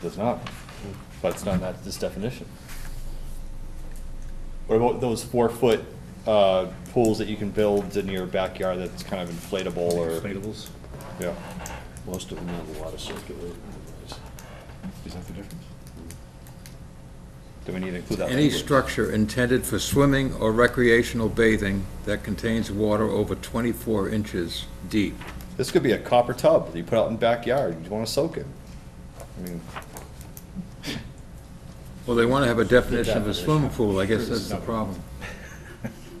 does not, but it's not in that, this definition. What about those four-foot, uh, pools that you can build in your backyard that's kind of inflatable or, Inflatables? yeah, Most of them have water circulating. Is that the difference? do we need to include that? Any language? structure intended for swimming or recreational bathing that contains water over 24 inches deep. This could be a copper tub that you put out in the backyard, you wanna soak it. I mean, Well, they want to have a definition of a swimming pool, I guess that's the problem.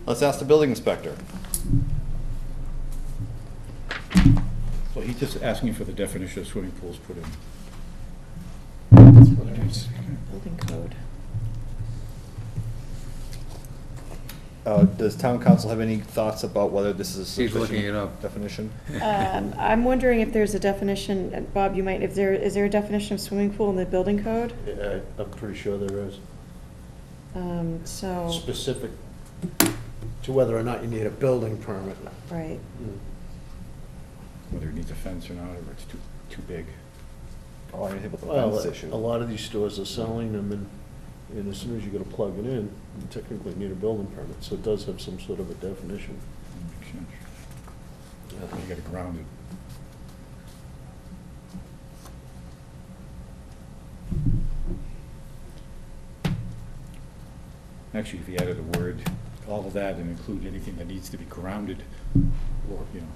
let's ask the building inspector. So he's just asking for the definition of swimming pools put in. It's- Building code. Uh, does town council have any thoughts about whether this is a He's looking it sufficient up. definition? Um, I'm wondering if there's a definition, and Bob, you might, if there, is there a definition of swimming pool in the building code? Yeah, I- I'm pretty sure there is. Um, so, Specific to whether or not you need a building permit. right, Whether it needs a fence or not, or it's too, too big. Oh, I didn't think about the Well, fence issue. a lot of these stores are selling them, and, and as soon as you go to plug it in, you technically need a building permit, so it does have some sort of a definition. Makes sense. You gotta ground it. Actually, if you added a word, all of that, and include anything that needs to be grounded, or, you know,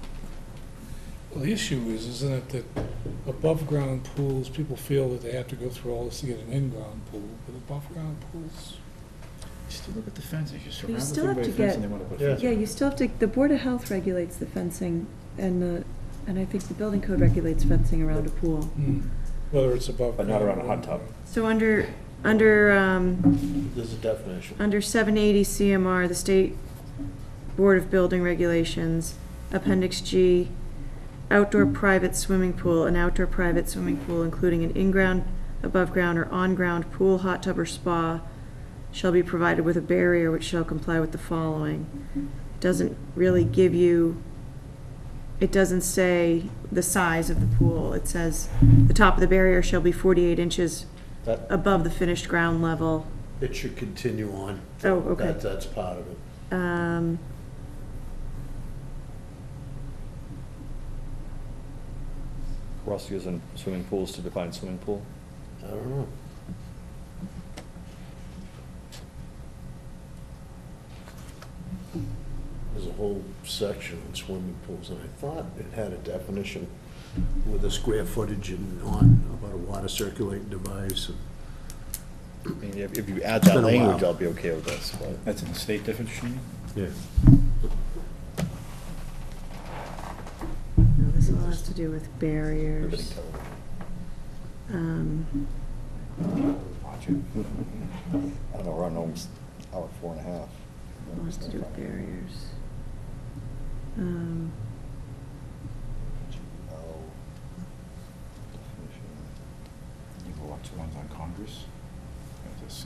Well, the issue is, isn't it that above-ground pools, people feel that they have to go through all this to get an in-ground pool, but above-ground pools, you still look at the fence, if you surround the still thing have by a to fence get- and they wanna put a Yeah. fence. yeah, you still have to, the Board of Health regulates the fencing, and the, and I think the building code regulates fencing around a pool. whether it's above. Hmm. But not around a hot tub. So under, under, um, There's a definition. Under 780 CMR, the State Board of Building Regulations, Appendix G, outdoor private swimming pool, an outdoor private swimming pool including an in-ground, above-ground, or on-ground pool, hot tub, or spa shall be provided with a barrier which shall comply with the following. Doesn't really give you, it doesn't say the size of the pool. It says, the top of the barrier shall be 48 inches That, above the finished ground level. it should continue on. Oh, okay. That, that's part of it. Um, We're also using swimming pools to define swimming pool. I don't know. There's a whole section on swimming pools, and I thought it had a definition with a square footage and on, about a water circulating device. I mean, if, if you add It's that been a while. language, I'll be okay with this, but. That's in the state definition? Yeah. no, this all has to do We're with getting barriers. television. Um, Watch it. I don't know, we're on almost hour four and a half. all has to do with barriers. Um, Oh. Definition. You go watch the ones on Congress? Yeah, this is-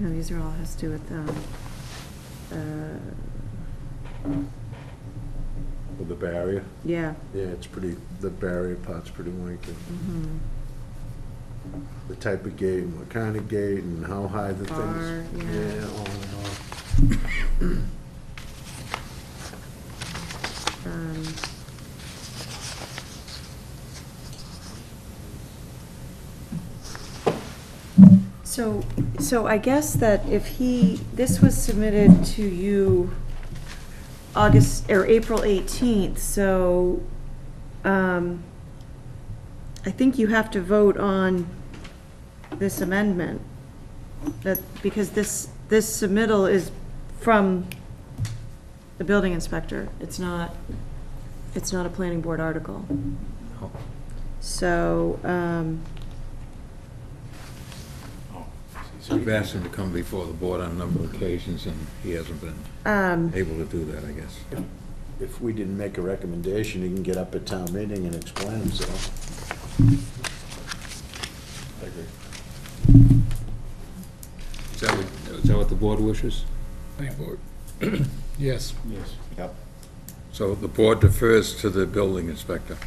no, these are all has to do with, um, uh, With the barrier? yeah. Yeah, it's pretty, the barrier part's pretty lengthy. mhm. The type of gate, and what kind of gate, and how high the Bar, things. yeah. all in all. Um, So, so I guess that if he, this was submitted to you August, or April 18th, so um, I think you have to vote on this amendment, that, because this, this submittal is from the building inspector. It's not, it's not a planning board article. So, um, Oh, see, so I've asked him to come before the board on a number of occasions, and he hasn't been um, able to do that, I guess. If we didn't make a recommendation, he can get up at town meeting and explain himself. I agree. Is that what- is that what the board wishes? Planning board. Yes, Yes. Yep. So the board defers to the building inspector.